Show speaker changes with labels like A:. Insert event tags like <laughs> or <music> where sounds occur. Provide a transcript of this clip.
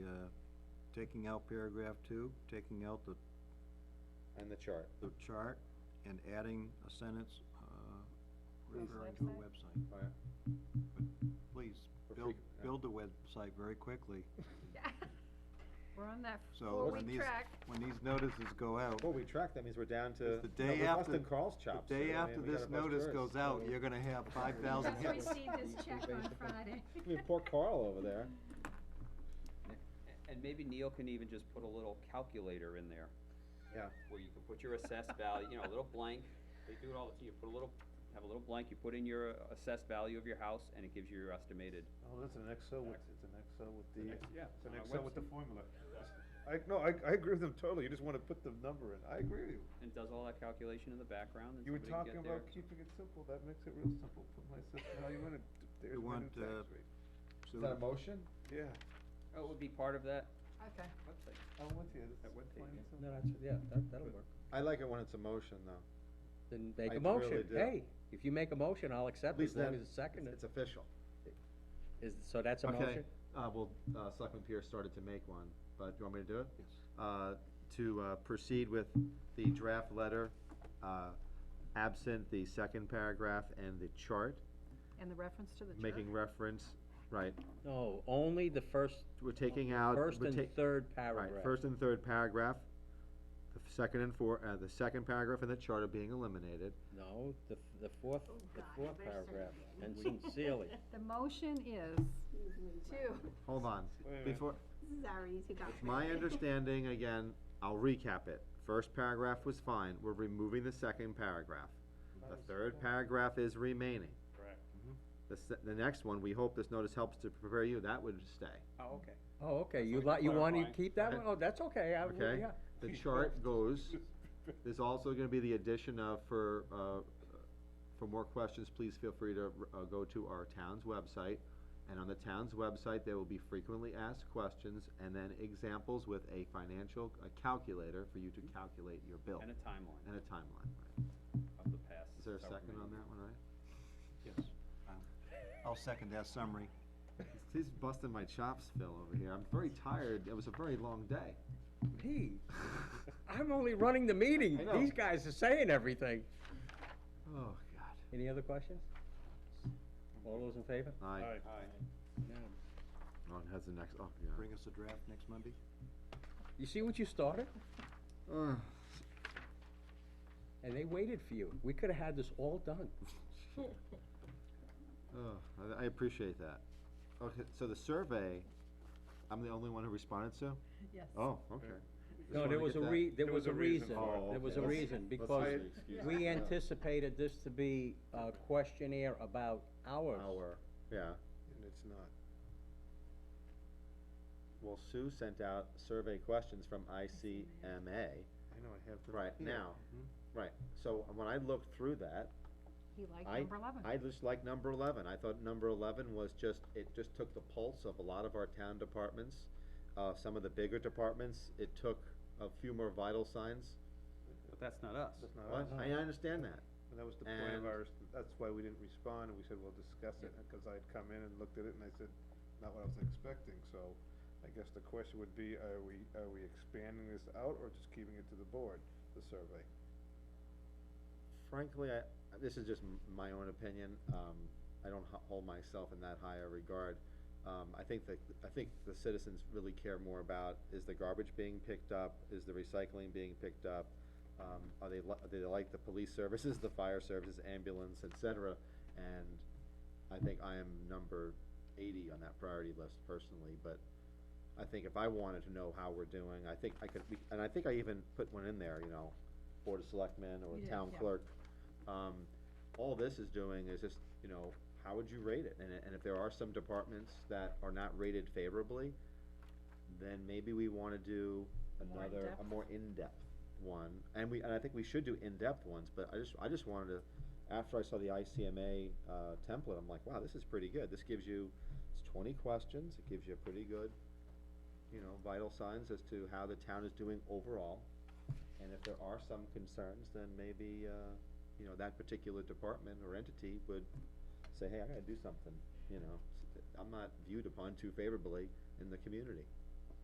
A: uh, taking out paragraph two, taking out the,
B: and the chart.
A: the chart, and adding a sentence, uh,
B: Please.
A: referring to a website.
B: Oh,
A: Please,
B: For
A: build,
B: frequent- yeah.
A: build the website very quickly,
C: We're on that
A: so when
C: four-week
A: these,
C: track.
A: when these notices go out,
B: Well, we track, that means we're down to.
A: It's the day
B: no, we
A: after-
B: busted Carl's chops.
A: the day
B: so, I mean,
A: after
B: we gotta
A: this
B: bust
A: notice
B: yours,
A: goes
B: so-
A: out, you're gonna have five thousand
C: Just
A: hits.
C: received this check on
B: basically- <laughs>
C: Friday.
B: I mean, poor Carl over there.
D: A- And maybe Neil can even just put a little calculator in there,
B: Yeah,
D: where you can put your
B: <laughs>
D: assessed value, you know, a little blank, they do it all, the you put a little, have a little blank, you put in your uh, assessed value of your house, and it gives you your estimated.
E: Oh, that's an Excel with, it's an Excel with the,
D: next- yeah,
E: it's an
D: on our
E: Excel with the
D: website.
E: formula. I, no, I, I agree with them totally, you just wanna put the number in, I agree with you.
D: And does all that calculation in the background, and
E: You were talking
D: somebody can get their.
E: about keeping it simple, that makes it real simple, put my assessed value in it, there's my new
A: want, uh,
E: tax rate.
A: So
B: is that a motion?
E: Yeah,
D: Oh, it would be part of that
C: Okay.
D: website.
E: I'm with you,
D: That
E: that's
D: web page,
E: plain
D: yeah.
E: and simple.
F: No, that's, yeah, that, that'll work.
B: I like it when it's a motion, though.
F: Then make
B: I
F: a
B: really
F: motion.
B: do.
F: Hey, if you make a motion, I'll
B: At
F: accept it
B: least
F: as long
B: then
F: as it's seconded.
B: It's official.
F: Is, so that's a
B: Okay,
F: motion?
B: uh, well, uh, Selectman Pierce started to make one, but do you want me to do it? Yes. Uh, to, uh, proceed with the draft letter, uh, absent the second paragraph and the chart,
C: And the reference to the chart?
B: making reference, right,
F: No, only the first,
B: we're taking out.
F: first
B: we're
F: and
B: ta-
F: third
B: Right,
F: paragraph.
B: first and third paragraph, the f- second and four, uh, the second paragraph and the chart are being eliminated.
F: No, the, f- the fourth,
G: Oh,
F: the
G: God,
F: fourth
G: you better send it
F: paragraph,
G: to me. <laughs>
F: and sincerely.
C: The motion is to,
B: Hold on,
E: Wait a minute.
B: before,
G: This is our easy document. <laughs>
B: It's my understanding, again, I'll recap it. First paragraph was fine, we're removing the second paragraph. The third paragraph is remaining. Mm-hmm.
E: Correct.
B: The se- the next one, we hope this notice helps to prepare you, that would stay,
D: Oh, okay.
F: Oh, okay, you
D: like
F: li, you wanna
D: clarifying.
F: keep that
B: Okay.
F: one? Oh, that's okay, I, would-
B: okay?
F: yeah.
B: The
E: <laughs>
B: chart goes, there's also gonna be the addition of, for, uh, for more questions, please feel free to, uh, go to our town's website. And on the town's website, there will be frequently asked questions and then examples with a financial, a calculator for you to calculate your bill.
D: And a timeline
B: And a timeline,
D: of the past.
B: Is there a
D: however
B: second on
D: many.
B: that one, right?
A: Yes, I'll- I'll second that summary.
B: He's busting my chops, Phil, over here. I'm very tired. It was a very long day.
F: Hey, I'm only running the meeting.
B: I know.
F: These guys are saying everything.
B: Oh, God.
F: Any other questions? All those in favor?
B: Aye.
E: Alright,
F: No.
B: Ron has the next, oh, yeah.
A: Bring us a draft next Monday.
F: You see what you started?
B: Ugh.
F: And they waited for you. We could've had this all done.
B: Ugh, Oh, I- I appreciate that. Okay, so the survey, I'm the only one who responded to?
C: yes.
B: Oh, okay. Just
F: No,
B: wanted
F: there
B: to
F: was a
B: get that.
F: re, there was a reason, Oh,
E: for it.
F: there was a
B: Let's-
F: reason,
B: let's
F: because
B: see the excuse.
F: we
B: Yeah.
F: anticipated this to be a questionnaire about ours.
B: Our, yeah.
E: And it's not.
B: Well, Sue sent out survey questions from ICMA
E: I know, I have them.
B: right
E: Yeah.
B: now.
E: Mhm.
B: Right, so when I looked through that,
C: He liked
B: I-
C: number eleven.
B: I just like number eleven, I thought number eleven was just, it just took the pulse of a lot of our town departments, uh, some of the bigger departments, it took a few more vital signs.
D: But that's not us.
E: That's
B: Well,
E: not us.
B: I, I understand that,
E: And that was the point of
B: And-
E: ours, that's why we didn't respond, and we said, we'll discuss it, because I'd come in and looked at it, and I said, not what I was expecting, so I guess the question would be, are we, are we expanding this out, or just keeping it to the board, the survey?
B: frankly, I, this is just m- my own opinion, um, I don't ho- hold myself in that high a regard. Um, I think that, I think the citizens really care more about, is the garbage being picked up, is the recycling being picked up? Um, are they, li- do they like the police services, the fire services, ambulance, et cetera? And I think I am number eighty on that priority list personally, but I think if I wanted to know how we're doing, I think I could, we- and I think I even put one in there, you know, Board of Selectmen or
C: You did,
B: Town
C: yeah.
B: Clerk. Um, all this is doing is just, you know, how would you rate it? And, and if there are some departments that are not rated favorably, then maybe we wanna do
C: More
B: another, a
C: in-depth.
B: more in-depth one. And we, and I think we should do in-depth ones, but I just, I just wanted to, after I saw the ICMA, uh, template, I'm like, wow, this is pretty good. This gives you, it's twenty questions, it gives you a pretty good, you know, vital signs as to how the town is doing overall. And if there are some concerns, then maybe, uh, you know, that particular department or entity would say, hey, I gotta do something, you know. s- I'm not viewed upon too favorably in the community.